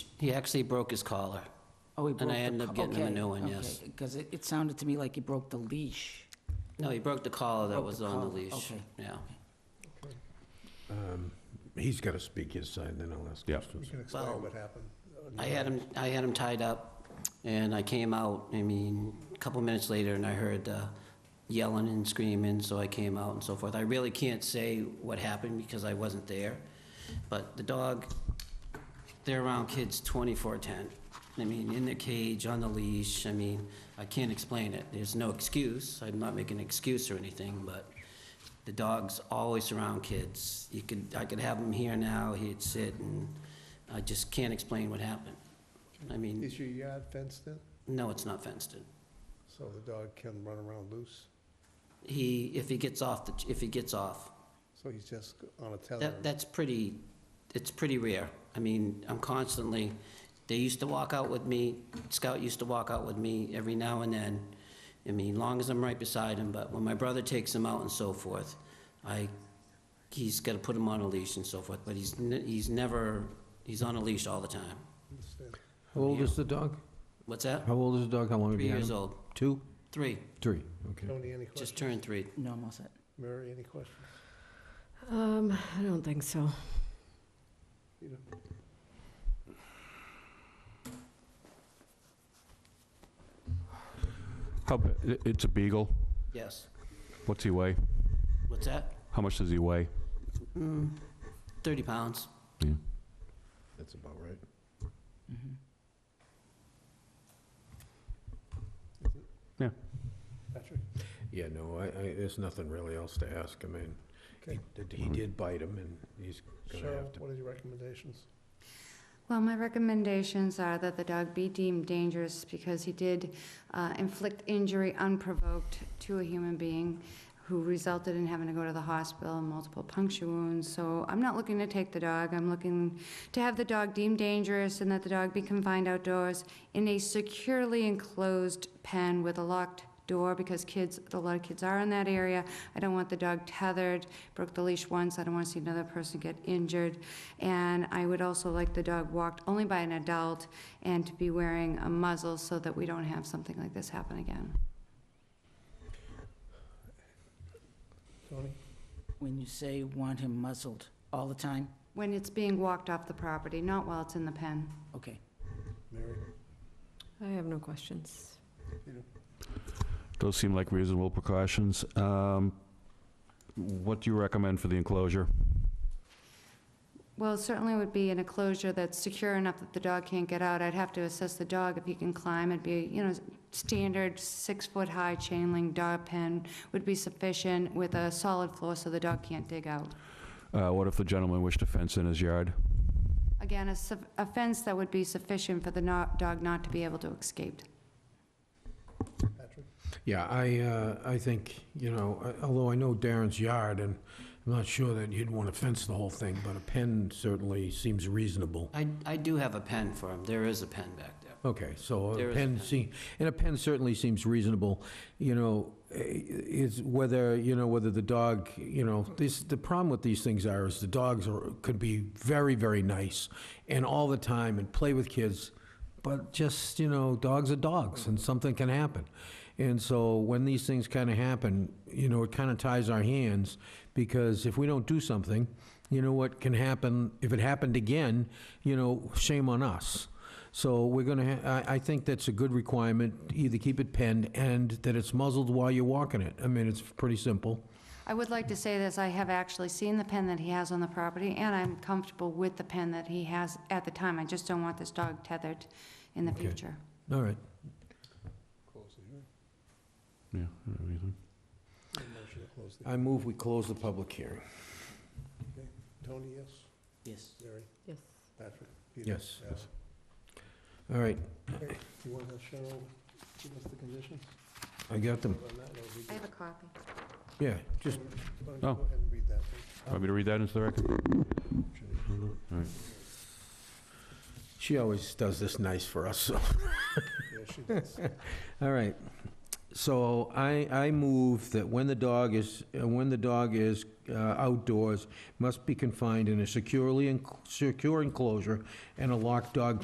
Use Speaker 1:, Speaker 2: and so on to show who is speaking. Speaker 1: He actually broke his collar.
Speaker 2: Oh, he broke
Speaker 1: And I ended up getting him a new one, yes.
Speaker 2: Because it, it sounded to me like he broke the leash.
Speaker 1: No, he broke the collar that
Speaker 2: Broke
Speaker 1: was
Speaker 2: the
Speaker 1: on the
Speaker 2: collar,
Speaker 1: leash.
Speaker 2: okay.
Speaker 1: Yeah.
Speaker 3: He's got to speak his side, then I'll ask
Speaker 4: Yeah.
Speaker 3: questions.
Speaker 5: You can explain
Speaker 1: Well,
Speaker 5: what happened.
Speaker 1: I had him, I had him tied up, and I came out, I mean, a couple minutes later, and I heard uh, yelling and screaming, so I came out and so forth. I really can't say what happened because I wasn't there, but the dog, they're around kids 24/10. I mean, in the cage, on the leash, I mean, I can't explain it. There's no excuse, I'm not making an excuse or anything, but the dog's always around kids. You could, I could have him here now, he'd sit, and I just can't explain what happened. I mean,
Speaker 5: Is your yard fenced in,
Speaker 1: no, it's not fenced in.
Speaker 5: so the dog can run around loose?
Speaker 1: He, if he gets off, the if he gets off,
Speaker 5: So he's just on a tether?
Speaker 1: That, that's pretty, it's pretty rare. I mean, I'm constantly, they used to walk out with me, Scout used to walk out with me every now and then. I mean, long as I'm right beside him, but when my brother takes him out and so forth, I, he's gotta put him on a leash and so forth, but he's, ne- he's never, he's on a leash all the time.
Speaker 5: Understand.
Speaker 4: How old is the dog?
Speaker 1: What's that?
Speaker 4: How old is the dog? How long have
Speaker 1: Three
Speaker 4: you had him?
Speaker 1: years old,
Speaker 4: Two?
Speaker 1: three,
Speaker 4: Three, okay.
Speaker 5: Tony, any
Speaker 1: just
Speaker 5: questions?
Speaker 1: turned three.
Speaker 2: No, I'm all set.
Speaker 5: Mary, any questions?
Speaker 6: Um, I don't think so.
Speaker 5: Peter?
Speaker 4: How, b- i- it's a beagle.
Speaker 1: Yes.
Speaker 4: What's he weigh?
Speaker 1: What's that?
Speaker 4: How much does he weigh?
Speaker 1: Mm, thirty pounds.
Speaker 3: That's about right.
Speaker 2: Mhm.
Speaker 5: Patrick?
Speaker 3: Yeah, no, I, I, there's nothing really else to ask. I mean,
Speaker 5: Okay.
Speaker 3: he did- he did bite him, and he's going to have
Speaker 5: Cheryl,
Speaker 3: to...
Speaker 5: what are your recommendations?
Speaker 7: Well, my recommendations are that the dog be deemed dangerous because he did uh, inflict injury unprovoked to a human being who resulted in having to go to the hospital and multiple puncture wounds. So I'm not looking to take the dog. I'm looking to have the dog deemed dangerous and that the dog be confined outdoors in a securely enclosed pen with a locked door because kids, a lot of kids are in that area. I don't want the dog tethered, broke the leash once, I don't want to see another person get injured. And I would also like the dog walked only by an adult and to be wearing a muzzle so that we don't have something like this happen again.
Speaker 5: Tony?
Speaker 2: When you say want him muzzled all the time,
Speaker 7: When it's being walked off the property, not while it's in the pen.
Speaker 2: okay.
Speaker 5: Mary?
Speaker 6: I have no questions.
Speaker 4: Those seem like reasonable precautions. Um, What do you recommend for the enclosure?
Speaker 7: Well, it certainly would be an enclosure that's secure enough that the dog can't get out. I'd have to assess the dog if he can climb. It'd be, you know, standard six-foot-high chain link dog pen would be sufficient with a solid floor so the dog can't dig out.
Speaker 4: Uh, What if the gentleman wished to fence in his yard?
Speaker 7: Again, a suf- a fence that would be sufficient for the no- dog not to be able to escape.
Speaker 5: Patrick?
Speaker 3: Yeah, I, uh, I think, you know, I- although I know Darren's yard, and I'm not sure that you'd want to fence the whole thing, but a pen certainly seems reasonable.
Speaker 1: I, I do have a pen for him, there is a pen back there.
Speaker 3: Okay, so
Speaker 1: There
Speaker 3: a
Speaker 1: is a
Speaker 3: pen
Speaker 1: pen.
Speaker 3: seem, and a pen certainly seems reasonable, you know, eh, is whether, you know, whether the dog, you know, this, the problem with these things are, is the dogs are, could be very, very nice, and all the time, and play with kids, but just, you know, dogs are dogs, and something can happen. And so when these things kind of happen, you know, it kind of ties our hands, because if we don't do something, you know what can happen, if it happened again, you know, shame on us. So we're going to, I I think that's a good requirement, either keep it penned and that it's muzzled while you're walking it. I mean, it's pretty simple.
Speaker 7: I would like to say this, I have actually seen the pen that he has on the property, and I'm comfortable with the pen that he has at the time. I just don't want this dog tethered in the
Speaker 3: Okay.
Speaker 7: future.
Speaker 3: All right.
Speaker 5: Close the hearing.
Speaker 4: Yeah. everything.
Speaker 5: Need a Motion to close the
Speaker 3: I move we close the public hearing.
Speaker 5: Tony, yes?
Speaker 2: Yes.
Speaker 5: Mary?
Speaker 6: Yes.
Speaker 5: Patrick? Peter?
Speaker 3: Yes.
Speaker 5: Al?
Speaker 3: All right,
Speaker 5: Okay. Do you want to have Cheryl give us the conditions?
Speaker 3: I got them.
Speaker 5: On that, or we
Speaker 7: I
Speaker 5: can-
Speaker 7: have a copy.
Speaker 3: Yeah, just,
Speaker 5: Why don't you Go ahead and read that, please?
Speaker 4: Want me to read that into the record?
Speaker 3: she always does this nice for us, so.
Speaker 5: Yeah, she does.
Speaker 3: All right. So I, I move that when the dog is, uh, when the dog is uh, outdoors, must be confined in a securely, enc- secure enclosure and a locked dog